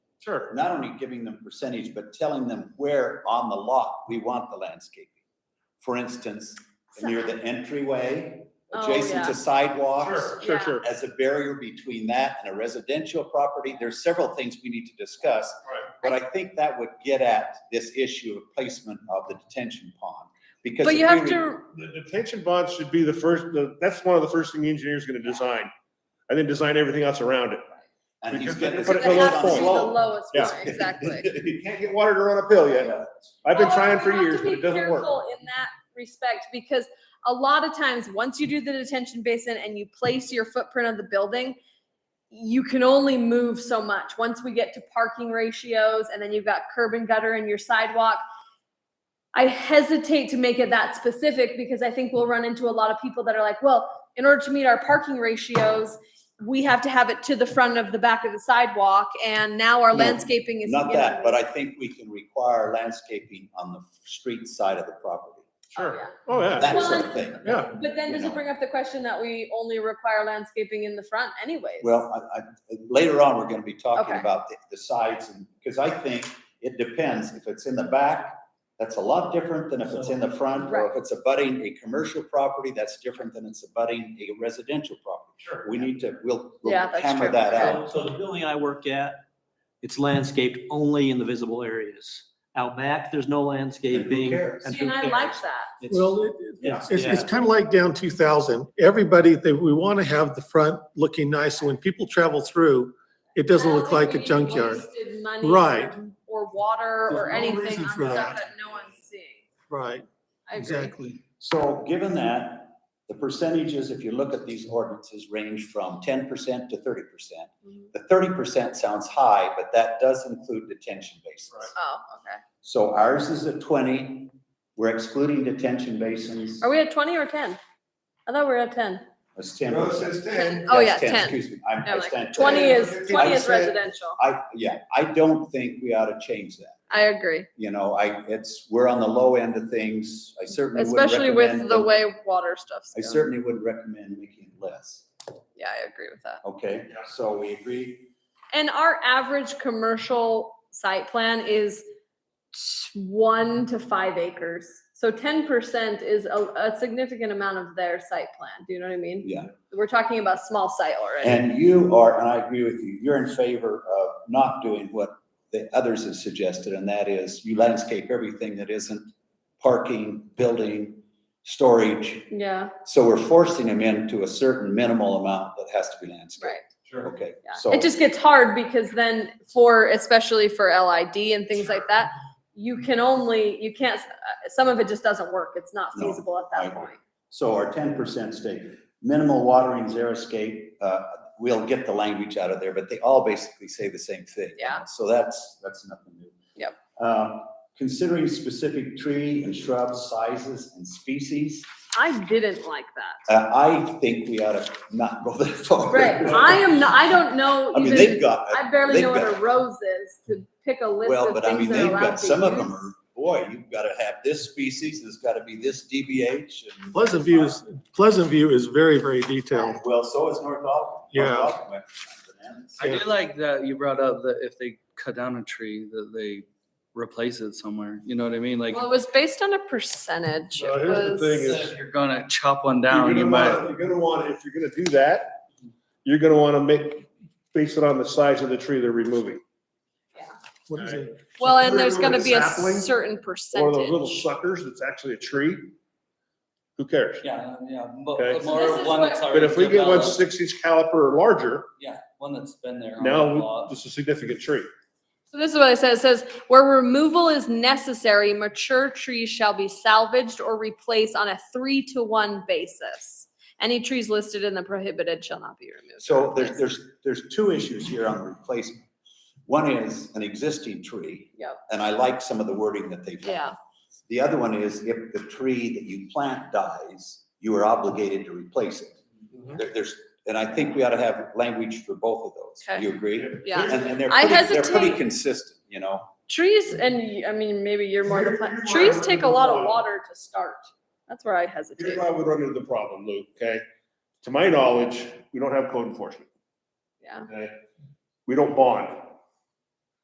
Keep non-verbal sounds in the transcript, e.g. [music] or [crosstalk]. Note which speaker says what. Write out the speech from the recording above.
Speaker 1: Sure.
Speaker 2: not only giving them percentage, but telling them where on the lot we want the landscaping. For instance, near the entryway,
Speaker 3: Oh,
Speaker 2: adjacent
Speaker 3: yeah.
Speaker 2: to sidewalks,
Speaker 1: Sure,
Speaker 3: Yeah.
Speaker 1: sure, sure.
Speaker 2: as a barrier between that and a residential property. There's several things we need to discuss.
Speaker 1: Right.
Speaker 2: But I think that would get at this issue of placement of the detention pond. Because
Speaker 3: But
Speaker 2: if
Speaker 3: you
Speaker 2: we
Speaker 3: have
Speaker 2: re-
Speaker 3: to,
Speaker 1: The detention bonds should be the first, the- that's one of the first thing the engineer's gonna design. And then design everything else around it.
Speaker 2: And he's
Speaker 1: because
Speaker 2: getting.
Speaker 1: they
Speaker 2: this
Speaker 1: put it in
Speaker 3: that
Speaker 1: the
Speaker 3: has
Speaker 2: on
Speaker 3: to
Speaker 1: low
Speaker 3: be the
Speaker 1: point.
Speaker 3: lowest
Speaker 1: Yeah.
Speaker 2: [laughs]
Speaker 3: one, exactly.
Speaker 1: You can't get water to run
Speaker 2: Oh,
Speaker 1: uphill yet. I've been
Speaker 3: Although
Speaker 1: trying
Speaker 3: Oh, you
Speaker 1: for
Speaker 3: have to
Speaker 1: years, but
Speaker 3: be
Speaker 1: it doesn't work.
Speaker 3: careful In that respect, because a lot of times, once you do the detention basin and you place your footprint of the building, you can only move so much. Once we get to parking ratios and then you've got curb and gutter and your sidewalk, I hesitate to make it that specific because I think we'll run into a lot of people that are like, well, in order to meet our parking ratios, we have to have it to the front of the back of the sidewalk and now our
Speaker 2: No,
Speaker 3: landscaping is.
Speaker 2: Not
Speaker 3: you know,
Speaker 2: that, but I think we can require landscaping on the street side of the property,
Speaker 3: yeah.
Speaker 1: Sure. Oh, yeah,
Speaker 2: that sort of thing.
Speaker 1: yeah.
Speaker 3: But then
Speaker 2: you
Speaker 3: does it
Speaker 2: know.
Speaker 3: bring up the question that we only require landscaping in the front anyways?
Speaker 2: Well, I, I, later on, we're gonna be talking
Speaker 3: Okay.
Speaker 2: about the, the sides and, because I think it depends. If it's in the back, that's a lot different than if it's in the front. Or if it's abutting a commercial property, that's different than it's abutting a residential property.
Speaker 4: Sure.
Speaker 2: We need to, we'll, we'll
Speaker 3: Yeah, that's
Speaker 2: hammer
Speaker 3: true.
Speaker 2: that out.
Speaker 4: So so the building I work at, it's landscaped only in the visible areas. Out back, there's no
Speaker 2: And who
Speaker 4: landscaping.
Speaker 2: cares?
Speaker 3: See, and I
Speaker 4: who
Speaker 3: like
Speaker 4: cares?
Speaker 3: that.
Speaker 4: It's-
Speaker 5: Well, it-
Speaker 4: Yeah,
Speaker 5: it's, it's- it's
Speaker 4: yeah.
Speaker 5: kind of like down two thousand. Everybody, they, we want to have the front looking nice. So when people travel through, it doesn't look like a junkyard.
Speaker 3: Wasted money
Speaker 5: Right.
Speaker 3: or- Or water
Speaker 5: There's
Speaker 3: or
Speaker 5: no
Speaker 3: anything
Speaker 5: reason
Speaker 3: on stuff
Speaker 5: for that.
Speaker 3: that no one's seeing.
Speaker 5: Right,
Speaker 3: I agree.
Speaker 5: exactly.
Speaker 2: So given that, the percentages, if you look at these ordinances, range from ten percent to thirty percent.
Speaker 3: Mhm.
Speaker 2: The thirty percent sounds high, but that does include detention basins.
Speaker 1: Right.
Speaker 3: Oh, okay.
Speaker 2: So ours is at twenty, we're excluding detention basins.
Speaker 3: Are we at twenty or ten? I thought we were at ten.
Speaker 2: That's ten.
Speaker 1: Well, it says ten.
Speaker 3: Oh, yeah,
Speaker 2: That's
Speaker 3: ten.
Speaker 2: Excuse me, I'm,
Speaker 3: No,
Speaker 2: I
Speaker 3: like
Speaker 2: stand.
Speaker 3: twenty
Speaker 1: I
Speaker 3: is, twenty is
Speaker 2: said-
Speaker 3: residential.
Speaker 2: I, yeah, I don't think we ought to change that,
Speaker 3: I agree,
Speaker 2: you know, I, it's, we're on the low end of things, I certainly would
Speaker 3: especially with the
Speaker 2: way.
Speaker 3: way water stuff's
Speaker 2: I
Speaker 3: going.
Speaker 2: certainly would recommend making it less,
Speaker 3: Yeah, I agree with that.
Speaker 2: okay?
Speaker 1: Yeah.
Speaker 2: So we agree,
Speaker 3: And our average commercial site plan is t- one to five acres. So ten percent is a, a significant amount of their site plan. Do you know what I mean?
Speaker 2: yeah,
Speaker 3: We're talking about small site already.
Speaker 2: and you are, and I agree with you, you're in favor of not doing what the others have suggested, and that is you landscape everything that isn't parking, building, storage,
Speaker 3: Yeah,
Speaker 2: So we're forcing them into a certain minimal amount that has to be landscaped.
Speaker 3: right.
Speaker 1: Sure.
Speaker 2: Okay,
Speaker 3: Yeah.
Speaker 2: so.
Speaker 3: It just gets hard because then for, especially for LID and things like that, you can only, you can't, uh, some of it just doesn't work. It's not
Speaker 2: No,
Speaker 3: feasible at
Speaker 2: I
Speaker 3: that
Speaker 2: agree.
Speaker 3: point.
Speaker 2: So our ten percent stake, minimal watering, zero escape, uh, we'll get the language out of there, but they all basically say the same thing.
Speaker 3: Yeah.
Speaker 2: So that's, that's nothing new.
Speaker 3: Yep.
Speaker 2: Um, considering specific tree and shrub sizes and species,
Speaker 3: I didn't like that.
Speaker 2: uh, I think we ought to not go that far.
Speaker 3: Right. I am not, I don't know.
Speaker 2: I mean,
Speaker 3: even-
Speaker 2: they've got,
Speaker 3: I barely
Speaker 2: They've
Speaker 3: know what a
Speaker 2: got-
Speaker 3: rose is to pick a list
Speaker 2: well,
Speaker 3: of
Speaker 2: but I mean,
Speaker 3: things that
Speaker 2: they've
Speaker 3: are allowed
Speaker 2: got,
Speaker 3: to
Speaker 2: some of them
Speaker 3: use.
Speaker 2: are, boy, you've got to have this species, there's got to be this DBH and.
Speaker 5: Pleasant View is, Pleasant View is very, very detailed.
Speaker 2: Well, so is North Ogden.
Speaker 5: Yeah.
Speaker 2: North Ogden went bananas.
Speaker 6: I do like that you brought up that if they cut down a tree, that they replace it somewhere. You know what I mean? Like,
Speaker 3: Well, it was based on a percentage.
Speaker 5: Well,
Speaker 3: It
Speaker 5: here's the thing
Speaker 3: was-
Speaker 6: if you're gonna chop one
Speaker 1: You're
Speaker 6: down, you
Speaker 1: gonna wanna,
Speaker 6: might.
Speaker 1: you're gonna wanna, if you're gonna do that, you're gonna wanna make, base it on the size of the tree they're removing.
Speaker 5: What is it?
Speaker 3: Well, and
Speaker 1: Remember
Speaker 3: there's gonna
Speaker 1: the
Speaker 3: be a
Speaker 1: sapling?
Speaker 3: certain
Speaker 1: Or those little
Speaker 3: percentage.
Speaker 1: suckers that's actually a tree. Who cares?
Speaker 6: Yeah, yeah,
Speaker 1: Okay.
Speaker 6: but
Speaker 3: So this
Speaker 6: more
Speaker 3: is
Speaker 6: one
Speaker 3: what-
Speaker 6: that's
Speaker 1: But
Speaker 6: already
Speaker 1: if we get one
Speaker 6: developed.
Speaker 1: six inch caliper or larger,
Speaker 6: Yeah, one that's been there. on the
Speaker 1: now
Speaker 6: lot.
Speaker 1: it's a significant tree.
Speaker 3: So this is what it says. It says, where removal is necessary, mature trees shall be salvaged or replaced on a three to one basis. Any trees listed in the prohibited shall not be removed. or
Speaker 2: So there's,
Speaker 3: replaced.
Speaker 2: there's, there's two issues here on replacement. One is an existing tree,
Speaker 3: Yep,
Speaker 2: and I like some of the wording that they've. done.
Speaker 3: yeah,
Speaker 2: The other one is if the tree that you plant dies, you are obligated to replace it.
Speaker 3: Mm-hmm.
Speaker 2: There- There's, and I think we ought to have language for both of those.
Speaker 3: Okay.
Speaker 2: You agree?
Speaker 3: yeah.
Speaker 2: And, and they're
Speaker 3: I
Speaker 2: pretty, they're pretty
Speaker 3: hesitate-
Speaker 2: consistent, you know?
Speaker 3: Trees, and you- I mean, maybe you're more, the
Speaker 1: Here-
Speaker 3: plant-
Speaker 1: here's why I
Speaker 3: trees
Speaker 1: would
Speaker 3: take a
Speaker 1: remove
Speaker 3: lot of
Speaker 1: water.
Speaker 3: water to start. That's where I hesitate.
Speaker 1: Here's why we run into the problem, Luke, okay? To my knowledge, we don't have code enforcement.
Speaker 3: Yeah.
Speaker 1: Okay? We don't bond.